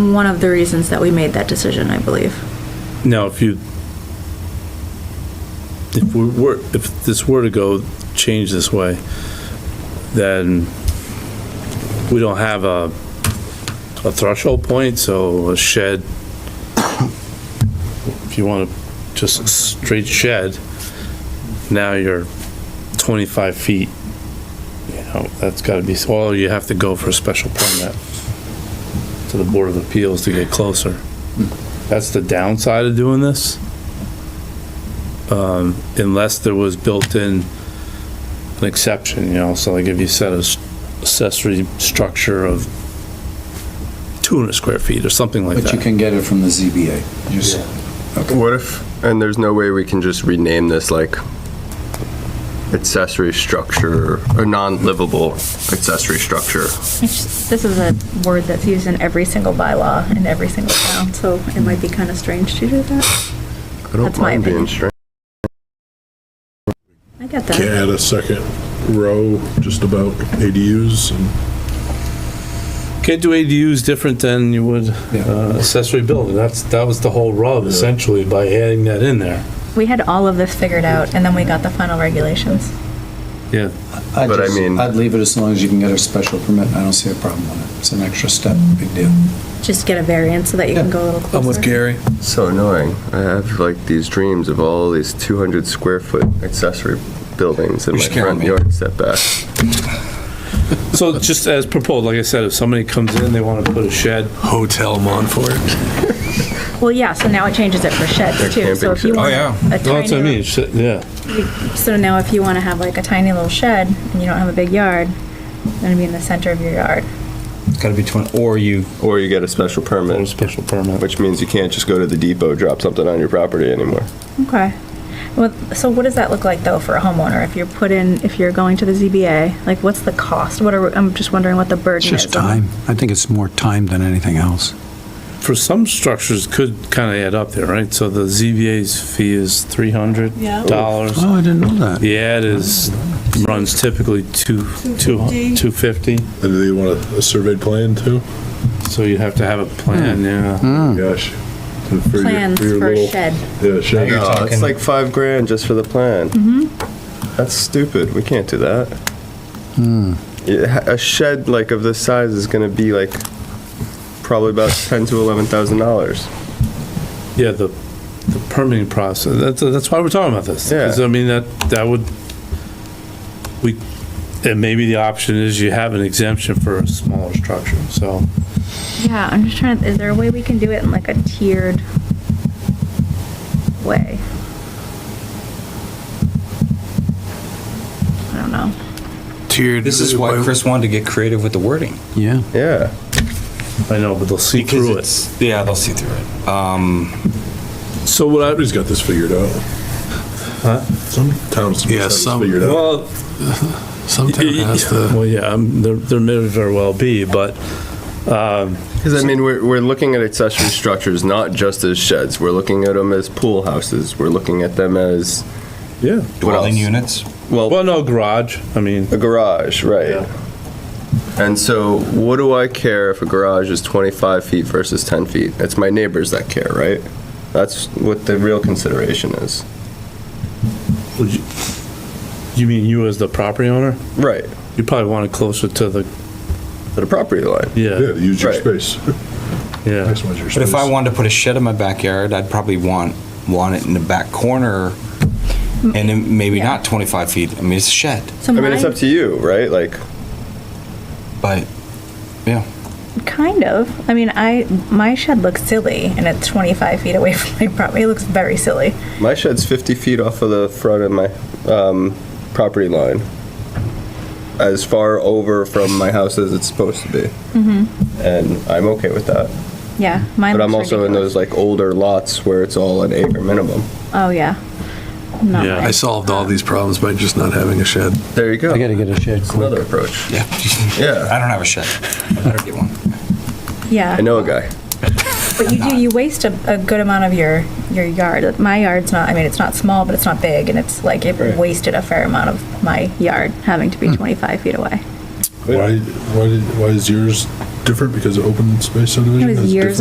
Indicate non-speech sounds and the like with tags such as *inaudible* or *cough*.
one of the reasons that we made that decision, I believe. Now, if you, if we were, if this were to go, change this way, then we don't have a, a threshold point, so a shed, if you want to, just a straight shed, now you're 25 feet, you know, that's got to be, well, you have to go for a special permit to the Board of Appeals to get closer. That's the downside of doing this. Um, Unless there was built-in an exception, you know, so like if you set a s- accessory structure of 200 square feet or something like But you that. can get it from the ZBA. Just- What if, and there's no way we can just rename this like accessory structure, or non-livable accessory structure? This is a word that's used in every single bylaw in every single town, so it might be kind of strange to do that. I don't That's my mind opinion. being strange. I get Can that. add a second row just about ADUs and Can't do ADUs different than you would uh, accessory building. That's, that was the whole rub essentially by adding that in there. We had all of this figured out, and then we got the final regulations. Yeah. I'd But I just- mean- I'd leave it as long as you can get a special permit. I don't see a problem with it. It's an extra step, big deal. Just get a variance so that you can Yeah. go a little closer. Gary. So annoying. I have like these dreams of all these 200 square foot accessory buildings in You're my scaring front me. yard setback. So just as proposed, like I said, if somebody comes in, they want to put a shed, Hotel Montfort. Well, yeah, so now it changes it for sheds too, so if you camping want shed. a No, that's what I mean, tiny, it's- yeah. little- so now if you want to have like a tiny little shed, and you don't have a big yard, it's gonna be in the center of your yard. It's gotta be 20, or you, Or you get a special Or a permit, special permit. which means you can't just go to the depot, drop something on your property anymore. Okay. Well, so what does that look like though for a homeowner? If you're put in, if you're going to the ZBA, like what's the cost? What are, I'm just wondering what the burden is. It's just on- time. I think it's more time than anything else. For some structures could kind of add up there, right? So the ZVA's fee is three hundred dollars. Oh, I didn't know that. The ad is, runs typically two, two, two fifty, and do they want a- a surveyed plan too? so you have to have a plan, yeah. Gosh. And for your- Plans your for a little- shed. Yeah, shed. No, talking- it's like five grand just for the plan. That's stupid. We can't do that. Hmm. Yeah, a shed like of this size is going to be like probably about ten to eleven thousand dollars. Yeah, the, the permitting process, that's, that's why we're talking about this. 'Cause, Yeah. I mean, that, that would, we, and maybe the option is you have an exemption for a smaller structure, so. Yeah, I'm just trying, is there a way we can do it in like a tiered way? I don't know. Tiered. this is why Chris wanted to get creative with the wording. Yeah. Yeah, I know, but they'll see through it. Yeah, they'll see through it. Um, So what I, Somebody's got this figured out. Some towns. Yeah, have this some- Figured out. well, sometimes has the, Well, yeah, um, there, there may very well be, but, um, because I mean we're we're looking at accessory structures not just as sheds. We're looking at them as pool houses. We're looking at them as yeah. what Dwelling else? units. Well, Well, no, garage, I mean, a garage, right? Yeah. And so, what do I care if a garage is 25 feet versus 10 feet? It's my neighbors that care, right? That's what the real consideration is. would you, you mean you as the property owner? Right. You probably want it closer to the, To the property line. Yeah, yeah, to use your Right. space. yeah. Maximize your space. But if I wanted to put a shed in my backyard, I'd probably want, want it in the back corner and then maybe Yeah. not 25 feet. I mean, it's a shed, So I mean, it's up mine, to you, right? Like, but kind of, I mean, I, my shed looks silly and it's 25 feet away *laughs* from my property. It looks very silly. my shed's 50 feet off of the front of my um, property line. As far over from my house as it's supposed to be. And I'm okay with that. Yeah, mine But I'm looks also in ridiculous. those like older lots where it's all an acre minimum. Oh, yeah. Not Yeah. mine. I solved all these problems by just not having a shed. There you go. I gotta get a shed It's quick. another approach. yeah. Yeah. *laughs* I don't have a shed. I better get one. Yeah. I know a guy. But you do, you waste a, a good amount of your, your yard. My yard's not, I mean, it's not small, but it's not big, and it's like, it Right. Hmm. wasted a fair amount of my yard having to be 25 feet away. Why, why, did- why is yours different because of open space subdivision? It was That's years different?